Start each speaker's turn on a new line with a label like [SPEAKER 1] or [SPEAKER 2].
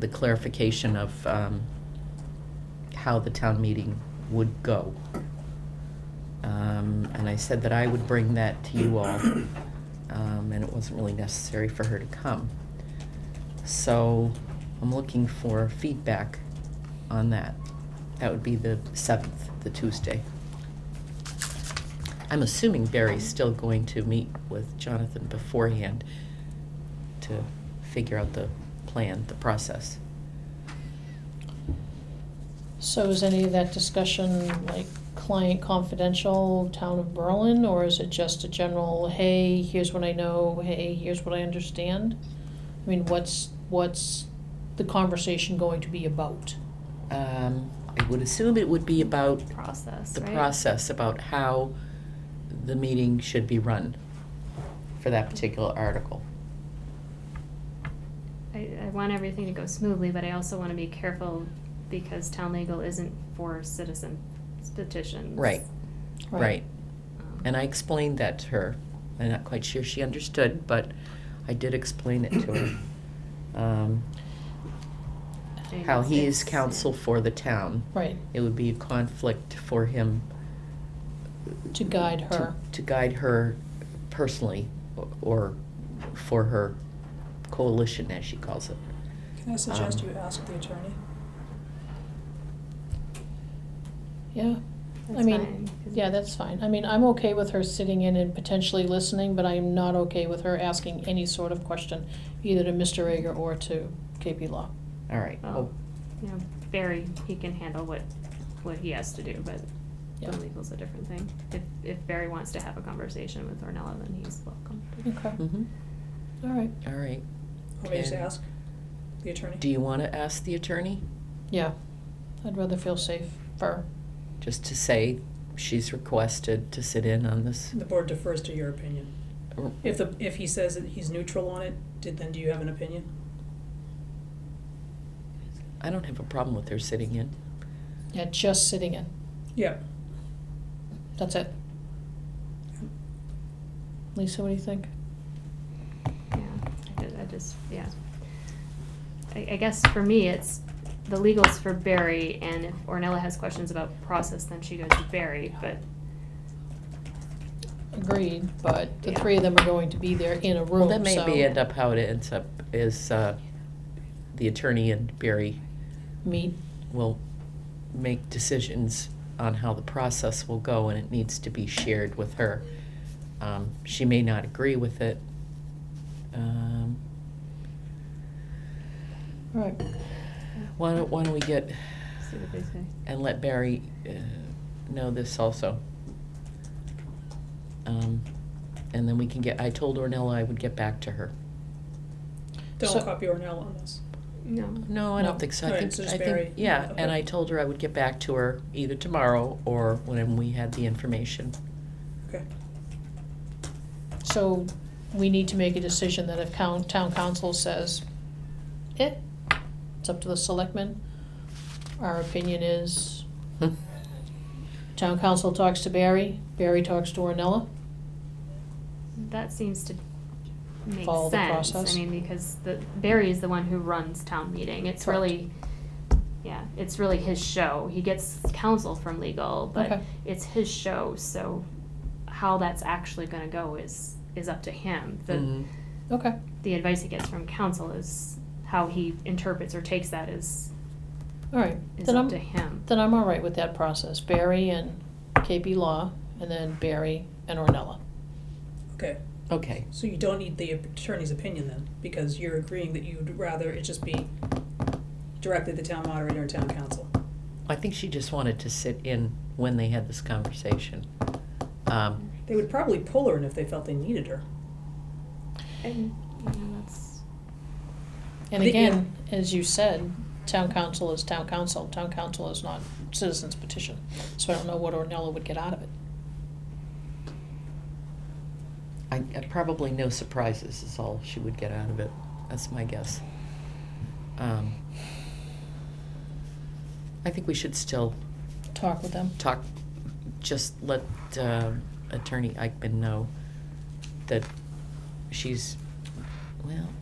[SPEAKER 1] the clarification of um, how the town meeting would go. Um, And I said that I would bring that to you all, um, and it wasn't really necessary for her to come. So I'm looking for feedback on that. That would be the 7th, the Tuesday. I'm assuming Barry's still going to meet with Jonathan beforehand to figure out the plan, the process.
[SPEAKER 2] So is any of that discussion like client confidential, town of Berlin, or is it just a general, hey, here's what I know, hey, here's what I understand? I mean, what's, what's the conversation going to be about?
[SPEAKER 1] Um, I would assume it would be about
[SPEAKER 3] process,
[SPEAKER 1] the
[SPEAKER 3] right?
[SPEAKER 1] process, about how the meeting should be run for that particular article.
[SPEAKER 3] I, I want everything to go smoothly, but I also want to be careful because town legal isn't for citizen petitions.
[SPEAKER 1] Right, right.
[SPEAKER 3] Um,
[SPEAKER 1] And I explained that to her. I'm not quite sure she understood, but I did explain it to her. Um,
[SPEAKER 3] and
[SPEAKER 1] How he
[SPEAKER 3] it's-
[SPEAKER 1] is counsel for the town.
[SPEAKER 2] Right,
[SPEAKER 1] It would be a conflict for him
[SPEAKER 2] to guide
[SPEAKER 1] to-
[SPEAKER 2] her.
[SPEAKER 1] To guide her personally o- or for her coalition, as she calls it.
[SPEAKER 4] Can I suggest
[SPEAKER 1] Um,
[SPEAKER 4] you ask the attorney?
[SPEAKER 2] Yeah, I
[SPEAKER 3] That's
[SPEAKER 2] mean,
[SPEAKER 3] fine, 'cause-
[SPEAKER 2] yeah, that's fine. I mean, I'm okay with her sitting in and potentially listening, but I am not okay with her asking any sort of question, either to Mr. Rager or to KP Law.
[SPEAKER 1] All right.
[SPEAKER 3] Well,
[SPEAKER 1] Oh,
[SPEAKER 3] you know, Barry, he can handle what, what he has to do, but
[SPEAKER 2] Yeah.
[SPEAKER 3] town legal's a different thing. If, if Barry wants to have a conversation with Ornella, then he's welcome. to.
[SPEAKER 2] Okay, all
[SPEAKER 1] mhm.
[SPEAKER 2] right,
[SPEAKER 1] All right.
[SPEAKER 4] Or me just
[SPEAKER 1] Can-
[SPEAKER 4] ask the attorney?
[SPEAKER 1] Do you want to ask the attorney?
[SPEAKER 2] yeah. I'd rather feel safe for
[SPEAKER 1] Just to say she's requested to sit in on this?
[SPEAKER 4] The board defers to your opinion.
[SPEAKER 1] or-
[SPEAKER 4] If the, if he says that he's neutral on it, did, then do you have an opinion?
[SPEAKER 1] I don't have a problem with her sitting in.
[SPEAKER 2] Yeah, just sitting in.
[SPEAKER 4] Yeah.
[SPEAKER 2] That's it. Lisa, what do you think?
[SPEAKER 3] Yeah, I did, I just, yeah. I, I guess for me, it's, the legal's for Barry, and if Ornella has questions about process, then she goes to Barry, but
[SPEAKER 2] Agreed, but the
[SPEAKER 3] Yeah.
[SPEAKER 2] three of them are going to be there in a
[SPEAKER 1] Well,
[SPEAKER 2] room, so.
[SPEAKER 1] that may be end up how it ends up is uh, the attorney and Barry
[SPEAKER 2] Meet,
[SPEAKER 1] will make decisions on how the process will go and it needs to be shared with her. Um, She may not agree with it. Um,
[SPEAKER 2] all right,
[SPEAKER 1] Why don't, why don't we get,
[SPEAKER 3] see what they say.
[SPEAKER 1] and let Barry uh, know this also. Um, And then we can get, I told Ornella I would get back to her.
[SPEAKER 4] Don't
[SPEAKER 2] So-
[SPEAKER 4] copy Ornell on this.
[SPEAKER 3] No.
[SPEAKER 1] No, I
[SPEAKER 2] No.
[SPEAKER 1] don't think so. I
[SPEAKER 4] Alright,
[SPEAKER 1] think,
[SPEAKER 4] so just
[SPEAKER 1] I think,
[SPEAKER 4] Barry.
[SPEAKER 1] yeah, and
[SPEAKER 4] Okay.
[SPEAKER 1] I told her I would get back to her either tomorrow or when we had the information.
[SPEAKER 4] Okay.
[SPEAKER 2] so we need to make a decision that if coun- town council says, eh, it's up to the selectmen. Our opinion is, town council talks to Barry, Barry talks to Ornella.
[SPEAKER 3] That seems to make
[SPEAKER 2] Follow the
[SPEAKER 3] sense. I
[SPEAKER 2] process.
[SPEAKER 3] mean, because the, Barry is the one who runs town meeting. It's
[SPEAKER 2] Correct.
[SPEAKER 3] really, yeah, it's really his show. He gets counsel from legal, but
[SPEAKER 2] Okay.
[SPEAKER 3] it's his show, so how that's actually gonna go is, is up to him. The,
[SPEAKER 2] Mm-hmm.
[SPEAKER 1] Mhm.
[SPEAKER 2] Okay,
[SPEAKER 3] the advice he gets from counsel is, how he interprets or takes that is,
[SPEAKER 2] all right,
[SPEAKER 3] is
[SPEAKER 2] then
[SPEAKER 3] up to
[SPEAKER 2] I'm,
[SPEAKER 3] him.
[SPEAKER 2] then I'm all right with that process, Barry and KP Law, and then Barry and Ornella.
[SPEAKER 4] Okay,
[SPEAKER 1] Okay,
[SPEAKER 4] so you don't need the attorney's opinion then, because you're agreeing that you'd rather it just be directly the town moderator and town council.
[SPEAKER 1] I think she just wanted to sit in when they had this conversation. Um,
[SPEAKER 4] They would probably pull her in if they felt they needed her.
[SPEAKER 3] And, you know, that's,
[SPEAKER 2] And
[SPEAKER 4] The-
[SPEAKER 2] again, as you said, town council is town council, town council is not citizens petition, so I don't know what Ornella would get out of it.
[SPEAKER 1] I, I probably no surprises is all she would get out of it. That's my guess. Um, I think we should still
[SPEAKER 2] Talk with them,
[SPEAKER 1] talk, just let uh, Attorney Eichman know that she's, well, Um,